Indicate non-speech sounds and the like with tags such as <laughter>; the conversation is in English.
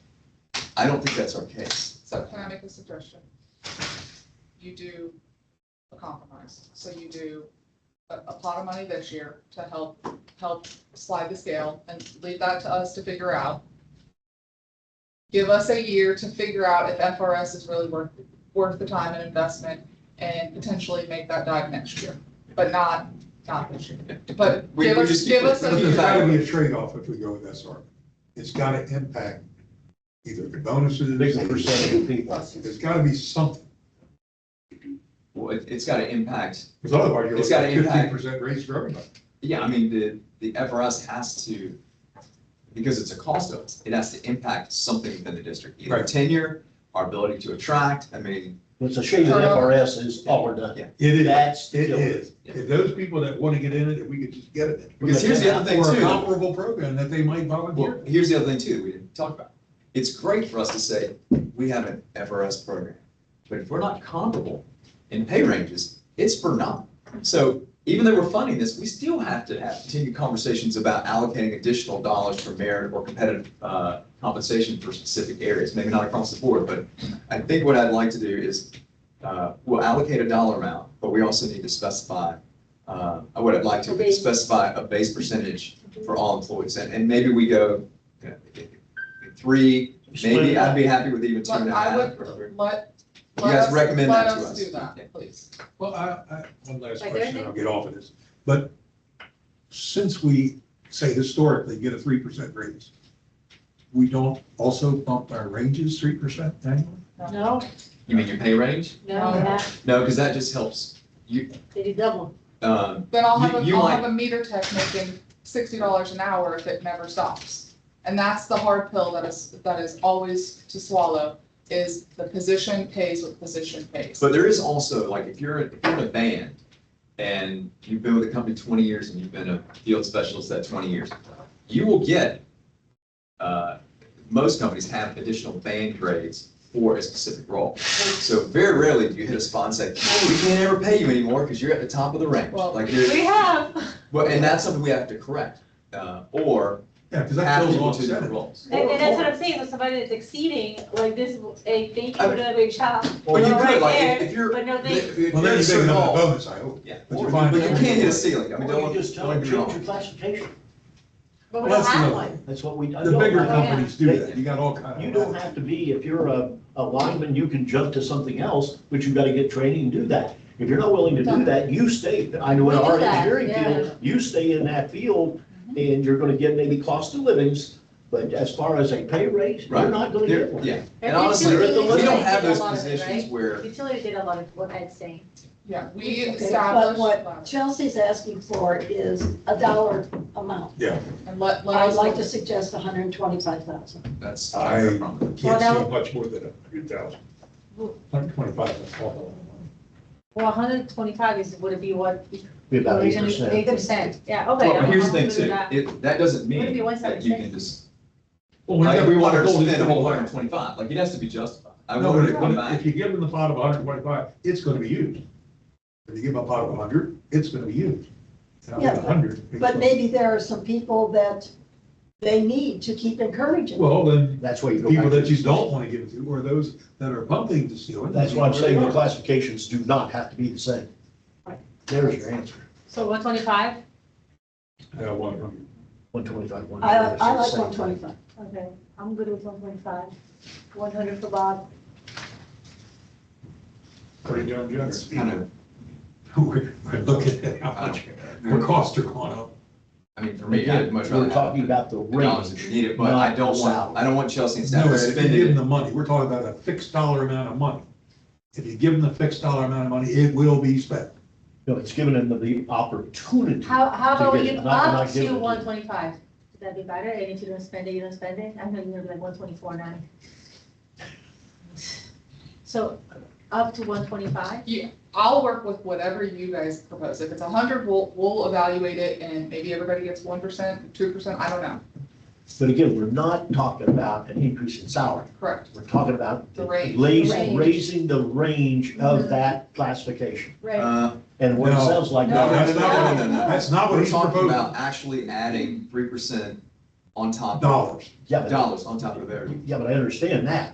I don't think that's our case. So can I make a suggestion? You do a compromise, so you do a, a pot of money this year to help, help slide the scale and leave that to us to figure out. Give us a year to figure out if FRS is really worth, worth the time and investment and potentially make that dive next year, but not, not this year. But We- give we us, just- give us But the a There's fact- got to year. be a trade-off if we go with SR. It's got to impact either the bonuses. Big percentage of people. There's got to be something, Well, it- it's got to impact, because otherwise you're It's looking gotta at fifteen impact. percent raise for everybody. yeah, I mean, the, the FRS has to, because it's a cost of us, it has to impact something within the district. Either Right. tenure, our ability to attract, I mean, It's a shame that FRS is all we're done. It is, That's it killer. is. If those people that want to get in it, if we could just get it. because here's the other thing Or a too. comparable program that they might Well, volunteer. here's the other thing too, that we didn't talk about. It's great for us to say, we have an FRS program, but if we're not comparable in pay ranges, it's for naught. So even though we're funding this, we still have to have continued conversations about allocating additional dollars for merit or competitive uh, compensation for specific areas, maybe not across the board, but I think what I'd like to do is, uh, we'll allocate a dollar amount, but we also need to specify, uh, what I'd like A to base. specify a base percentage for all employees, and, and maybe we go, you know, three, maybe I'd be happy with even two and But a I half. would, or- let, You let guys us, recommend let that to us us. do that, Yeah. please. Well, I, I, one last Like question, everything? I'll get off of this. But since we say historically get a three percent raise, we don't also bump our ranges three percent annually? No, You mean your pay range? no, that, No, because that just helps, they do double. um, Then I'll have, You- a you will have a meter tech making sixty dollars an hour if it never stops. And that's the hard pill that is, that is always to swallow, is the position pays what the position pays. but there is also, like, if you're, if you're in a band and you've been with a company twenty years and you've been a field specialist that twenty years, you will get, uh, most companies have additional band grades for a specific role. So very rarely do you hit a spot and say, we can't ever pay you anymore because you're at the top of the range. Well, Like, you're, We have, Well, and that's something we have to correct, uh, or Yeah, because that have goes people on to seven. different roles. and, and that's what I'm saying, with somebody that's exceeding, like this, a thank you, I for mean- doing a big job, Or you Well, could, right like, if- there, if you're. but no, they, if you're Well, at then a you get certain another level- bonus, I hope. Yeah, But you or- find but you out- can't hit a ceiling, I mean, Or don't, you just tell don't them, get me change your wrong. classification. but Well, we don't that's have the- one. That's what we. I The don't- bigger I- companies do They- that, you got all kinds of. You don't have to be, if you're a, a lineman, you can jump to something else, but you've got to get training and do that. If you're not willing to do that, you stay, I know in We do our that, engineering yeah. Mm-hmm. field, you stay in that field and you're going to get maybe cost of livings, but as far as a pay raise, Right. you're not going to There- get one. Yeah, and Every honestly, utility we don't utility have did a those lot of it, positions right? where, Utility did a lot of what Ed's saying. Yeah, we Okay, but established, What Chelsea's asking for is a dollar amount. and let, let I'd us. like to suggest hundred and twenty-five thousand. that's. I- not a problem. Can't Well, see now- much more than a hundred thousand. Hundred twenty-five, that's all. Well, hundred and twenty-five is, would it be what? Be about eight Eight percent. percent, yeah, okay. Well, but I'm- here's the thing I'm good with too, that. it, that doesn't What if mean you want that you can something? just, Well, we like, have we a want her to goal to spend a whole do it. hundred and twenty-five, like, it has to be justified. I No, want but her to come if- back, if you give them the pot of hundred and twenty-five, it's gonna be used. If you give them a pot of hundred, it's gonna be used. And I Yeah, want but- 100. But maybe there are some people that they need to keep encouraging. Well, then, That's why you go people back. that you don't wanna give it to, or those that are pumping the stealing. That's why I'm saying the classifications do not have to be the same. There's your answer, So one twenty-five? Yeah, one hundred. one twenty-five, one. I, I like one twenty-five. Okay, I'm good with one twenty-five. One hundred for Bob. What are you doing, that's kind of, <laughs> We're, we're looking at how much, our costs are going up. I mean, for me, I'd Again, much rather. we're have talking it. about the The dollars if you range. need it, but I not don't the want, salary. I don't want Chelsea and staff No, to if you give them spend it. the money, we're talking about a fixed dollar amount of money. If you give them the fixed dollar amount of money, it will be spent. No, it's giving them the opportunity. How, how To about get we it, up not- not give it to to you. one twenty-five? Would that be better? And if you don't spend it, you don't spend it? I'm gonna give like one twenty-four nine. So up to one twenty-five? I'll work with whatever you guys propose. If it's a hundred, we'll, we'll evaluate it and maybe everybody gets one percent, two percent, I don't know. But again, we're not talking about an increase in salary. Correct. We're talking about The range. raising, Range. raising the range Mhm. of that classification. Right. Uh, And what it No. sounds like. No, that's no, not, no, no, no. that's not what We're he's talking proposing. about actually adding three percent on top, of Dollars. Yeah, but, dollars on top of everything. yeah, but I understand that.